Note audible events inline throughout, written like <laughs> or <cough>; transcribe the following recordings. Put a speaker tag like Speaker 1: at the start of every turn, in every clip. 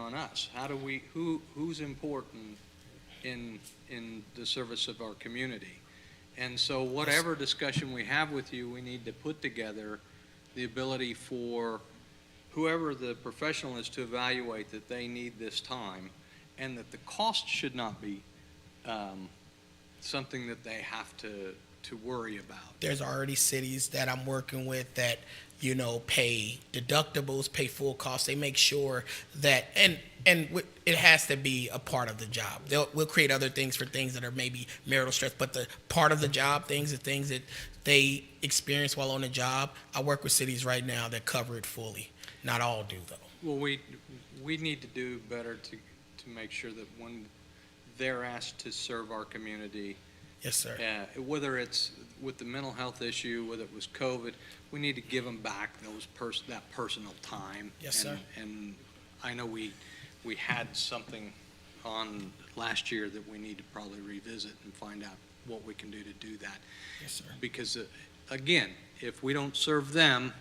Speaker 1: on us. How do we, who, who's important in, in the service of our community? And so whatever discussion we have with you, we need to put together the ability for whoever the professional is to evaluate that they need this time and that the cost should not be um, something that they have to, to worry about.
Speaker 2: there's already cities that I'm working with that you know pay deductibles, pay full costs. They make sure that and and w- it has to be a part of the job. They'll we'll create other things for things that are maybe marital stress, but the part of the job things, the things that they experience while on the job. I work with cities right now that cover it fully. Not all do though.
Speaker 1: Well, we, we need to do better to, to make sure that when they're asked to serve our community,
Speaker 2: Yes, sir.
Speaker 1: uh, whether it's with the mental health issue, whether it was COVID, we need to give them back those pers- that personal time.
Speaker 2: Yes, sir.
Speaker 1: And, and I know we, we had something on last year that we need to probably revisit and find out what we can do to do that.
Speaker 2: Yes, sir.
Speaker 1: Because, uh, again, if we don't serve them,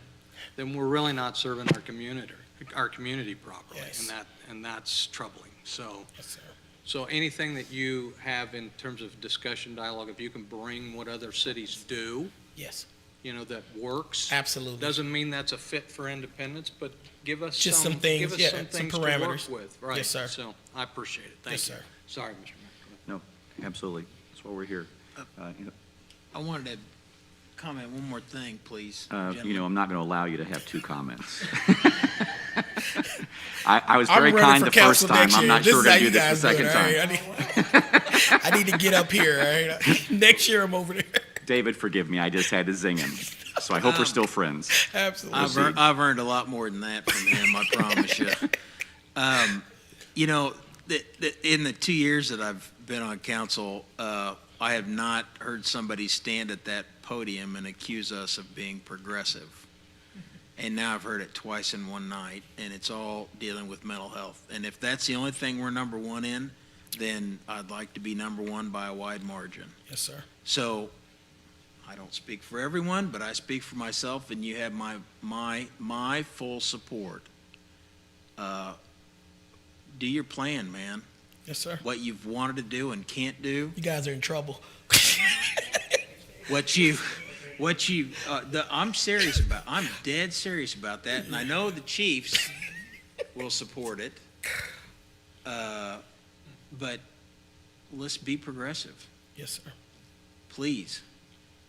Speaker 1: then we're really not serving our community, our community properly.
Speaker 2: Yes.
Speaker 1: And that, and that's troubling. So,
Speaker 2: Yes, sir.
Speaker 1: so anything that you have in terms of discussion, dialogue, if you can bring what other cities do,
Speaker 2: Yes,
Speaker 1: you know, that works.
Speaker 2: absolutely.
Speaker 1: Doesn't mean that's a fit for independence, but give us
Speaker 2: Just
Speaker 1: some,
Speaker 2: some things,
Speaker 1: give us
Speaker 2: yeah,
Speaker 1: some
Speaker 2: some
Speaker 1: things to work
Speaker 2: parameters.
Speaker 1: with. Right.
Speaker 2: Yes, sir.
Speaker 1: So I appreciate it. Thank
Speaker 2: Yes,
Speaker 1: you.
Speaker 2: sir.
Speaker 1: Sorry, Mr. Mayor.
Speaker 3: Absolutely. That's why we're here. Uh, you know-
Speaker 4: I wanted to comment one more thing, please.
Speaker 3: uh, You
Speaker 4: gentlemen.
Speaker 3: know, I'm not going to allow you to have two
Speaker 2: <laughs>
Speaker 3: comments. <laughs> I, I was
Speaker 2: I'm
Speaker 3: very
Speaker 2: running
Speaker 3: kind
Speaker 2: for
Speaker 3: the
Speaker 2: council
Speaker 3: first time.
Speaker 2: next
Speaker 3: I'm
Speaker 2: year.
Speaker 3: not sure
Speaker 2: is
Speaker 3: we're
Speaker 2: how
Speaker 3: going to
Speaker 2: you
Speaker 3: do
Speaker 2: guys
Speaker 3: this the
Speaker 2: do it,
Speaker 3: second
Speaker 2: all right?
Speaker 3: time.
Speaker 2: I need, I need to get up here. All right, <laughs> next year I'm over there.
Speaker 3: David, forgive me. I just had to
Speaker 2: <laughs>
Speaker 3: zing him. So I hope
Speaker 2: Um,
Speaker 3: we're still friends.
Speaker 2: Absolutely.
Speaker 3: Um,
Speaker 4: I've, ear- I've earned a lot more than that from
Speaker 3: <laughs>
Speaker 4: him, I promise you. Um, you know, the, the, in the two years that I've been on council, uh, I have not heard somebody stand at that podium and accuse us of being progressive. And now I've heard it twice in one night, and it's all dealing with mental health. And if that's the only thing we're number one in, then I'd like to be number one by a wide margin.
Speaker 2: Yes, sir.
Speaker 4: So, I don't speak for everyone, but I speak for myself, and you have my, my, my full support. Uh, Do your plan, man.
Speaker 2: Yes, sir.
Speaker 4: What you've wanted to do and can't do,
Speaker 2: You guys are in trouble. <laughs>
Speaker 4: what you, what you, uh, the, I'm serious about, I'm dead serious about that, and I know the Chiefs will support it. Uh, But let's be progressive.
Speaker 2: yes, sir.
Speaker 4: please.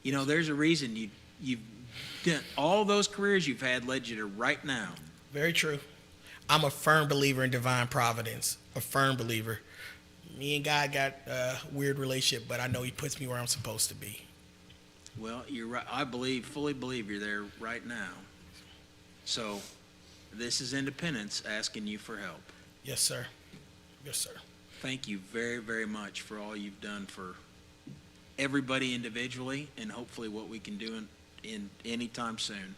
Speaker 4: You know, there's a reason you you've done all those careers you've had led you to right now.
Speaker 2: Very true. I'm a firm believer in divine providence. A firm believer. Me and God got a weird relationship, but I know He puts me where I'm supposed to be.
Speaker 4: Well, you're right. I believe, fully believe you're there right now. So, this is independence asking you for help.
Speaker 2: Yes, sir. Yes, sir.
Speaker 4: Thank you very, very much for all you've done for everybody individually, and hopefully what we can do in, in anytime soon.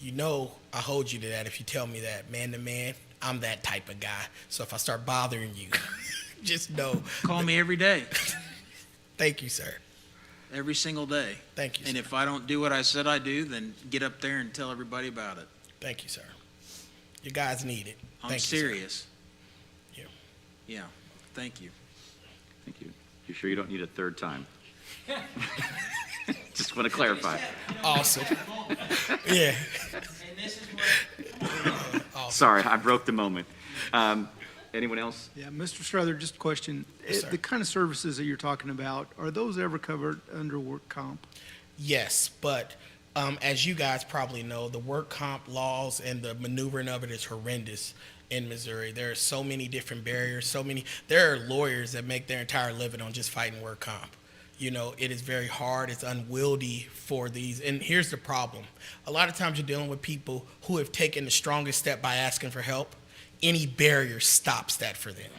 Speaker 2: You know, I hold you to that if you tell me that man to man. I'm that type of guy. So if I start bothering you, <laughs> just know.
Speaker 4: Call me every day,
Speaker 2: Thank you, sir.
Speaker 4: every single day.
Speaker 2: Thank you.
Speaker 4: And
Speaker 2: Sir.
Speaker 4: if I don't do what I said I do, then get up there and tell everybody about it.
Speaker 2: Thank you, sir. You guys need it.
Speaker 4: I'm
Speaker 2: Thank you, sir.
Speaker 4: serious.
Speaker 2: Yeah.
Speaker 4: Yeah. Thank you.
Speaker 3: Thank you. You sure you don't need a
Speaker 2: <laughs>
Speaker 3: third time? <laughs> Just want to clarify.
Speaker 4: <laughs>
Speaker 2: Awesome. yeah.
Speaker 4: And this is
Speaker 2: <laughs>
Speaker 4: what.
Speaker 3: Sorry, I broke the moment. Um, Anyone else?
Speaker 5: Yeah, Mr. Strother, just a question.
Speaker 2: Yes,
Speaker 5: Eh,
Speaker 2: sir.
Speaker 5: The kind of services that you're talking about, are those ever covered under work comp?
Speaker 2: Yes, but um, as you guys probably know, the work comp laws and the maneuvering of it is horrendous in Missouri. There are so many different barriers, so many. There are lawyers that make their entire living on just fighting work comp. You know, it is very hard. It's unwieldy for these. And here's the problem a lot of times you're dealing with people who have taken the strongest step by asking for help. Any barrier stops that for them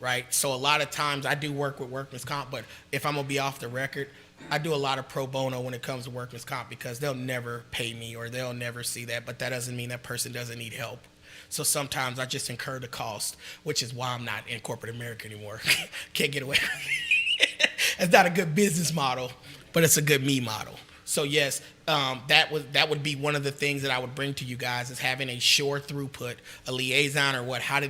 Speaker 2: right? So a lot of times I do work with workman's comp, but if I'm gonna be off the record, I do a lot of pro bono when it comes to workman's comp because they'll never pay me or they'll never see that, but that doesn't mean that person doesn't need help. So sometimes I just incur the cost, which is why I'm not in corporate America anymore. <laughs> Can't get away. it's not a good business model, but it's a good me model. So yes, um, that was that would be one of the things that I would bring to you guys is having a sure throughput, a liaison or what? How did